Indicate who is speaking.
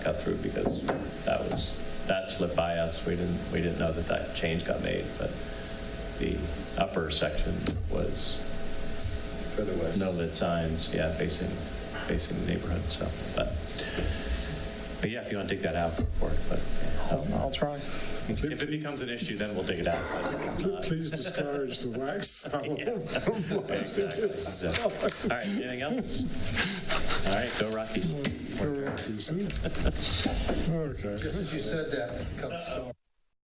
Speaker 1: cut through because that was, that slipped by us. We didn't, we didn't know that that change got made, but the upper section was
Speaker 2: further west.
Speaker 1: no lit signs, yeah, facing, facing the neighborhood, so, but, but yeah, if you want to dig that out, for it, but
Speaker 3: I'll I'll try.
Speaker 1: if it becomes an issue, then we'll dig it out. but it's not.
Speaker 4: Please discourage the wax salvo.
Speaker 1: Exactly. exactly. All right, anything else? All right, go Rockies.
Speaker 4: Okay.
Speaker 2: Just as you said that, it comes.